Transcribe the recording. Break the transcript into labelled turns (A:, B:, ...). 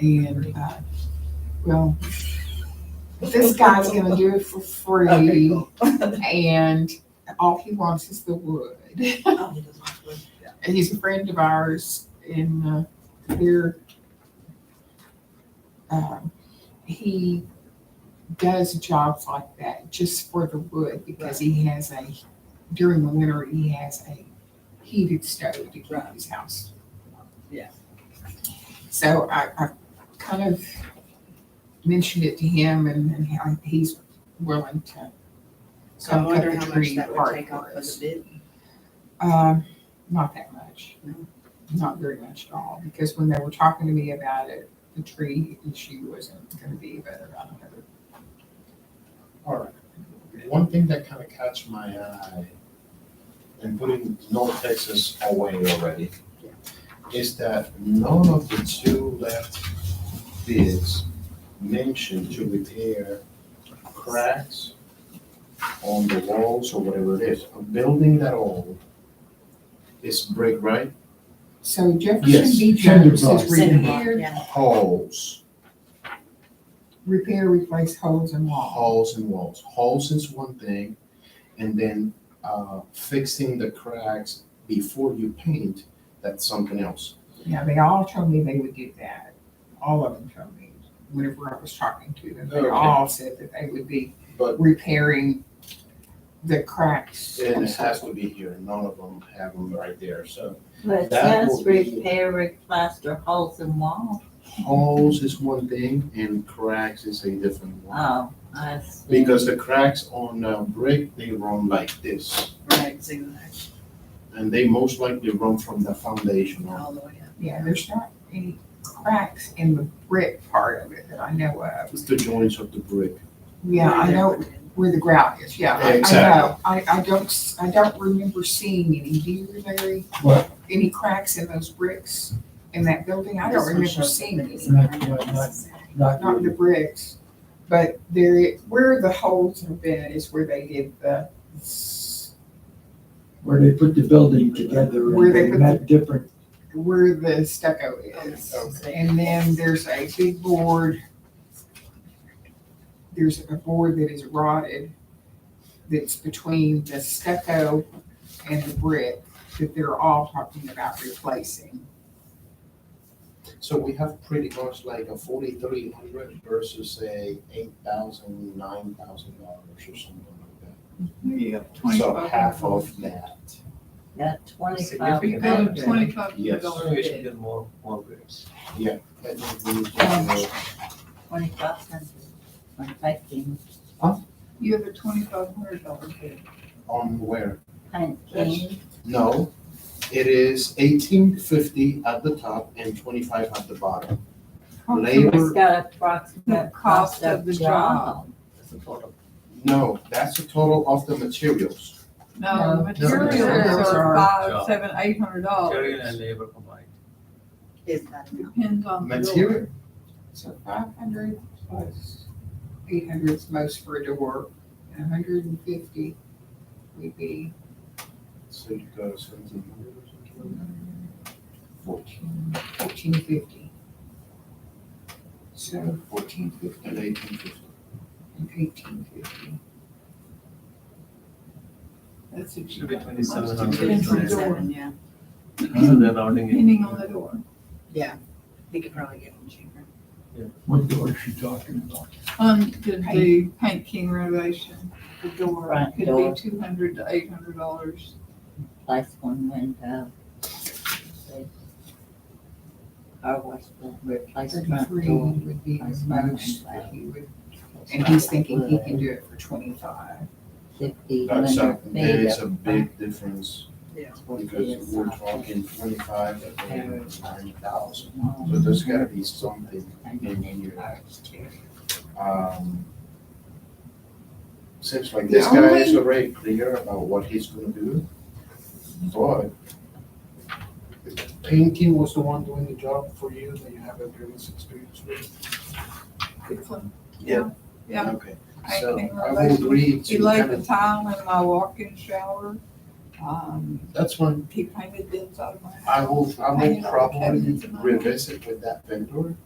A: and, uh, well, this guy's gonna do it for free, and all he wants is the wood. And he's a friend of ours, and, uh, we're, um, he does jobs like that just for the wood, because he has a, during the winter, he has a heated stove to keep
B: Right.
A: his house. warm.
B: Yeah.
A: So I, I kind of mentioned it to him and, and how he's willing to.
B: So I
A: come cut
B: wonder
A: the
B: how much
A: tree
B: that would
A: apart
B: take
A: for
B: off of the
A: us.
B: bid.
A: Um, not that much.
B: No?
A: Not very much at all, because when they were talking to me about it, the tree issue wasn't gonna be, but I don't know.
C: All right. One thing that kind of caught my eye, and putting North Texas away already, is that none of the two left bids mentioned to repair cracks on the walls or whatever it is. A building that old is brick, right?
A: So Jefferson
C: Yes,
A: B.
C: cinder
A: Jones
C: blocks.
A: says
C: Cinder
A: repair,
B: Yeah.
C: Holes,
A: repair, replace holes in wall.
C: holes and walls. Holes is one thing, and then uh, fixing the cracks before you paint, that's something else.
A: Yeah, they all told me they would do that. All of them told me, whenever I was talking to them, they
C: Okay.
A: all said that they would be
C: But-
A: repairing the cracks.
C: And it has to be here, none of them have them right there, so.
D: But it
C: That
D: says
C: will be-
D: repair, replaster holes in wall.
C: Holes is one thing and cracks is a different
A: Ah.
C: one.
D: Oh, I see.
C: Because the cracks on uh, brick, they run like this,
B: Right, zigzag,
C: and they most likely run from the foundation on.
A: Ah.
B: all the way up.
A: Yeah, there's not any cracks in the brick part of it that I know of.
C: It's the joints of the brick.
A: Yeah, I know where the grout is, yeah. I- I know.
C: Exactly.
A: I, I don't, s- I don't remember seeing any, do you, Larry?
E: What?
A: Any cracks in those bricks in that building? I don't remember seeing any,
E: Not, not, not- not
A: not the
E: really.
A: bricks. But there, i- where the holes have been is where they did the, s-
E: where they put the building together
A: Where
E: and
A: they
E: they
A: put
E: met different,
A: where the stucco is.
B: Oh.
A: And then there's a big board. There's a board that is rotted that's between the stucco and the brick that they're all talking about replacing.
C: So we have pretty much like a forty-three hundred versus a eight thousand, nine thousand dollars or something like
F: Yeah,
C: that.
F: twenty.
C: So half of that.
D: Got twenty-five.
F: Significant.
D: grand.
F: Yeah.
G: Twenty-five
C: Yes.
G: hundred dollar
F: We should
G: bid.
F: get more, more bids.
C: I think we need to-
D: Twenty-five hundred, twenty-five king,
G: You have a twenty-five hundred dollar bid.
C: On where?
D: paint king,
C: No, it is eighteen fifty at the top and twenty-five at the bottom.
D: it's
C: Labor,
D: got approximate
G: The cost of the job.
D: That's a total.
C: no, that's the total of the materials.
G: No,
A: No.
G: materials
A: Materials are-
G: are five, seven, eight hundred
F: Material and
G: dollars.
F: labor combined.
B: Is that enough?
G: Depends on the door.
C: Material,
A: So five hundred plus eight hundred is most for a door, a hundred and fifty would be
C: so you go seventeen hundred.
A: fourteen, fourteen fifty. So fourteen fifty
C: And eighteen fifty.
A: and eighteen fifty.
G: That's what you
F: Should be
G: got.
F: twenty-seven
G: Depends on
F: hundred.
G: the door,
B: Yeah,
F: They're rounding
G: depending on the door.
B: he could probably get them cheaper.
E: what door is she talking about?
G: On the, the Paint King renovation, the door
D: Front
G: could
D: door.
G: be two hundred to eight hundred dollars.
D: Place one window. Car wash, will replace front
A: Thirty-three
D: door.
A: would be
D: That's
A: the
D: fine.
A: most that he would, and he's thinking he can do it for twenty-five.
D: Fifty
C: That's
D: window
C: a, there
D: feet.
C: is a big difference because we're talking twenty-five and nine thousand. So there's gotta be something in here. Um, Seems like this
A: The
C: guy is
A: only-
C: already clear about what he's gonna do, but painting was the one doing the job for you that you have a previous experience with?
G: Yeah. Yeah.
C: Okay,
G: I
C: so
G: think
C: I
G: relation-
C: will agree
G: He
C: to
G: laid
C: kind
G: the
C: of,
G: tile in my walk-in shower. Um,
C: that's fine.
G: he painted the inside of my house.
C: I will, I
G: I
C: will
G: know,
C: probably
G: cabinets and all.
C: revisit with that vendor